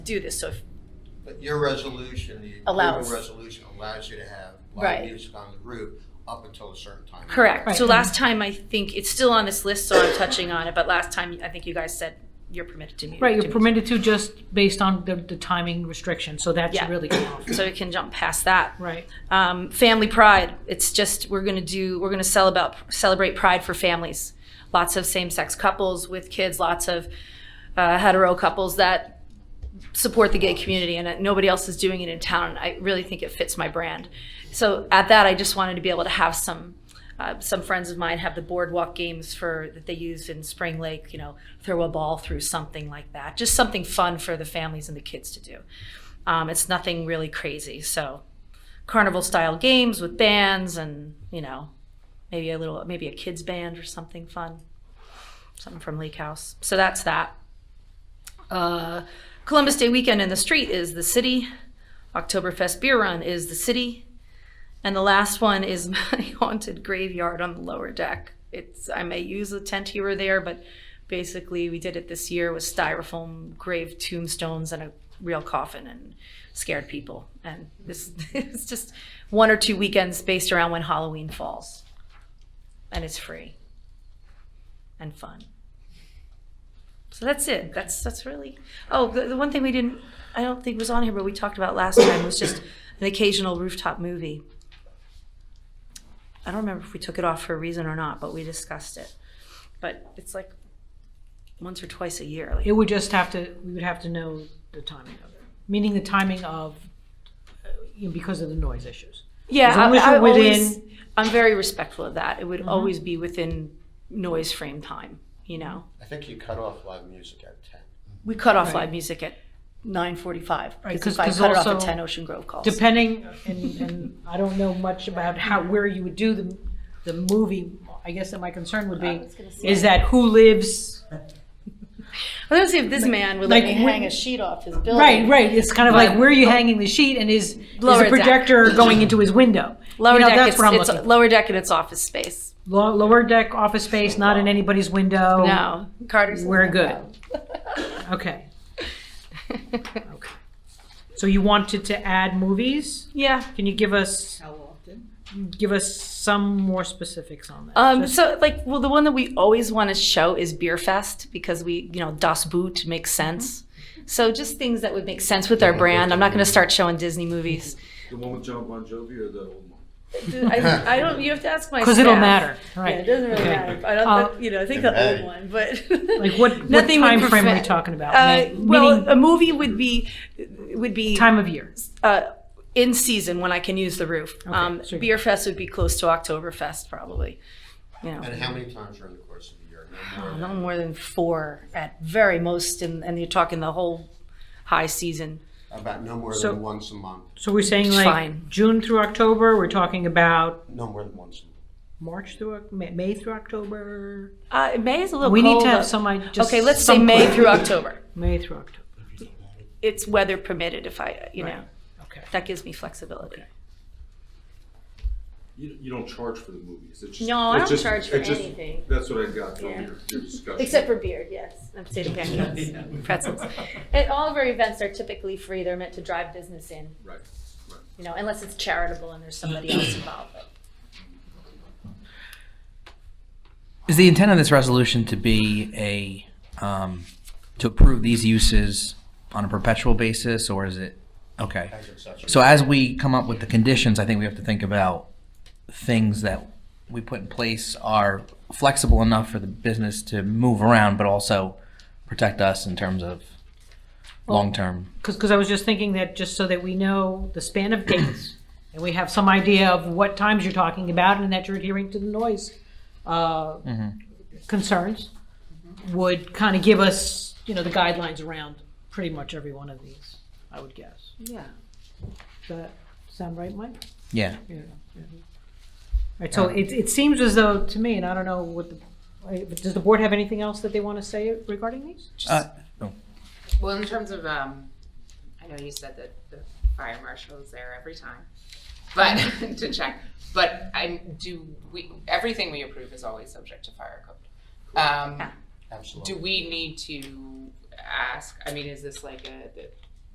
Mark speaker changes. Speaker 1: do this, so if,
Speaker 2: But your resolution, the
Speaker 1: Allows.
Speaker 2: approval resolution allows you to have
Speaker 1: Right.
Speaker 2: live music on the roof up until a certain time.
Speaker 1: correct,
Speaker 3: Right.
Speaker 1: so last time, I think, it's still on this list, so I'm touching on it, but last time, I think you guys said you're permitted to. mu- to
Speaker 3: Right, you're
Speaker 1: mu-
Speaker 3: permitted to just based on the, the timing restriction, so that
Speaker 1: Yeah.
Speaker 3: should really come off.
Speaker 1: So we can jump past that.
Speaker 3: Right,
Speaker 1: um, family pride. It's just we're gonna do we're gonna sell about, celebrate pride for families. Lots of same-sex couples with kids. Lots of uh, hetero couples that support the gay community, and uh, nobody else is doing it in town. I really think it fits my brand. So at that, I just wanted to be able to have some. Uh, some friends of mine have the boardwalk games for that they use in Spring Lake. You know, throw a ball through something like that. Just something fun for the families and the kids to do. Um, it's nothing really crazy. So carnival style games with bands and you know maybe a little maybe a kids band or something fun something from leak house so that's that uh, columbus day weekend in the street is the city oktoberfest beer run is the city and the last one is my haunted graveyard on the lower deck it's i may use a tent here or there but basically we did it this year with styrofoam grave tombstones and a real coffin and scared people and this it's just one or two weekends based around when halloween falls and it's free and fun so that's it that's that's really oh the, the one thing we didn't i don't think was on here but we talked about last time was just an occasional rooftop movie i don't remember if we took it off for a reason or not but we discussed it but it's like once or twice a year like
Speaker 3: it would just have to, we would have to know the timing of it, meaning the timing of, uh, you know, because of the noise issues.
Speaker 1: Yeah,
Speaker 3: As long as
Speaker 1: I, I
Speaker 3: you're
Speaker 1: always,
Speaker 3: within- Mm-hmm.
Speaker 1: I'm very respectful of that. It would always be within noise frame time. You know,
Speaker 2: I think you cut off live music at ten.
Speaker 1: we cut off
Speaker 3: Right.
Speaker 1: live music at 9:45
Speaker 3: Right,
Speaker 1: because
Speaker 3: 'cause-
Speaker 1: if I
Speaker 3: 'cause
Speaker 1: cut it off at
Speaker 3: also
Speaker 1: 10, Ocean Grove calls.
Speaker 3: Depending, and, and I don't know much about how, where you would do the, the movie, I guess that my concern would be, is that who lives,
Speaker 1: I was gonna say if this man would
Speaker 3: Like,
Speaker 1: let me
Speaker 3: we-
Speaker 1: hang a sheet off his building.
Speaker 3: right, right, it's kind of like, where are you hanging the sheet, and is, is
Speaker 1: oh. Lower
Speaker 3: the
Speaker 1: deck.
Speaker 3: projector going into his window? You
Speaker 1: Lower
Speaker 3: know,
Speaker 1: deck.
Speaker 3: that's
Speaker 1: it's,
Speaker 3: what I'm
Speaker 1: it's
Speaker 3: looking for.
Speaker 1: lower deck and it's office space.
Speaker 3: Lo- Lower deck, office space, not in anybody's window.
Speaker 1: No, Carter's.
Speaker 3: We're good. Okay, okay. So you wanted to add movies?
Speaker 1: yeah.
Speaker 3: Can you give us? How often? Give us some more specifics on that.
Speaker 1: Um,
Speaker 3: Just-
Speaker 1: so like, well, the one that we always want to show is Beer Fest because we, you know, Das Boot makes sense. So just things that would make sense with our brand. I'm not going to start showing Disney movies.
Speaker 4: The one with John Bon Jovi or the old one?
Speaker 1: I, I don't. You have to ask my.
Speaker 3: Cause it'll
Speaker 1: staff.
Speaker 3: matter,
Speaker 1: Yeah, it
Speaker 3: right?
Speaker 1: doesn't really
Speaker 3: Okay.
Speaker 1: matter. I don't.
Speaker 3: Uh,
Speaker 1: think- you know, I think
Speaker 2: Doesn't
Speaker 1: the old
Speaker 2: matter.
Speaker 1: one, but
Speaker 3: Like what, what
Speaker 1: nothing would
Speaker 3: timeframe are we
Speaker 1: prevent-
Speaker 3: talking about?
Speaker 1: Uh,
Speaker 3: Meaning-
Speaker 1: well,
Speaker 3: meaning
Speaker 1: a movie would be would be
Speaker 3: Time of year,
Speaker 1: uh, in season when I can use the roof. um,
Speaker 3: sure.
Speaker 1: Beer Fest would be close to Oktoberfest, probably. You know.
Speaker 2: And how many times during the course of the year? No more
Speaker 1: No
Speaker 2: than-
Speaker 1: more than four at very most, and, and you're talking the whole high season.
Speaker 2: About no more
Speaker 3: So-
Speaker 2: than once a month,
Speaker 3: so we're saying
Speaker 1: It's
Speaker 3: like
Speaker 1: fine.
Speaker 3: June through October, we're talking about
Speaker 2: no more than once a month.
Speaker 3: March through, Oc- Ma- May through October?
Speaker 1: Uh, May is a little
Speaker 3: We need
Speaker 1: cold,
Speaker 3: to
Speaker 1: uh,
Speaker 3: have some, I just.
Speaker 1: Okay, let's say
Speaker 3: some-
Speaker 1: May through October.
Speaker 3: May through October,
Speaker 1: It's weather permitted if I, you know,
Speaker 3: Right. okay.
Speaker 1: that gives me flexibility.
Speaker 4: You, you don't charge for the movies. It's just,
Speaker 1: No, I
Speaker 4: it's
Speaker 1: don't
Speaker 4: just-
Speaker 1: charge for
Speaker 4: it's just-
Speaker 1: anything.
Speaker 4: That's what I got from
Speaker 1: Yeah.
Speaker 4: your, your discussion.
Speaker 1: for beer, yes. I'm stating that, pretzels. And all of our events are typically free. They're meant to drive business in,
Speaker 4: Right, right.
Speaker 1: you know, unless it's charitable and there's somebody else involved.
Speaker 5: Is the intent of this resolution to be a, um, to approve these uses on a perpetual basis, or is it, okay?
Speaker 2: As accessory.
Speaker 5: So as we come up with the conditions, I think we have to think about things that we put in place are flexible enough for the business to move around, but also protect us in terms of long-term.
Speaker 3: Because, I was just thinking that, just so that we know the span of dates, and we have some idea of what times you're talking about, and that you're adhering to the noise uh, concerns, would kind of give us, you know, the guidelines around pretty much every one of these, I would guess.
Speaker 1: Yeah.
Speaker 3: Does that sound right, Mike?
Speaker 5: Yeah.
Speaker 3: Yeah. Right, so it, it seems as though, to me, and I don't know what, the I- does the board have anything else that they want to say regarding these?
Speaker 5: Uh,
Speaker 6: Well, in terms of, um, I know you said that the fire marshal is there every time, but, to check, but I, do we, everything we approve is always subject to fire code. Um,
Speaker 2: Absolutely.
Speaker 6: do we need to ask, I mean, is this like a, that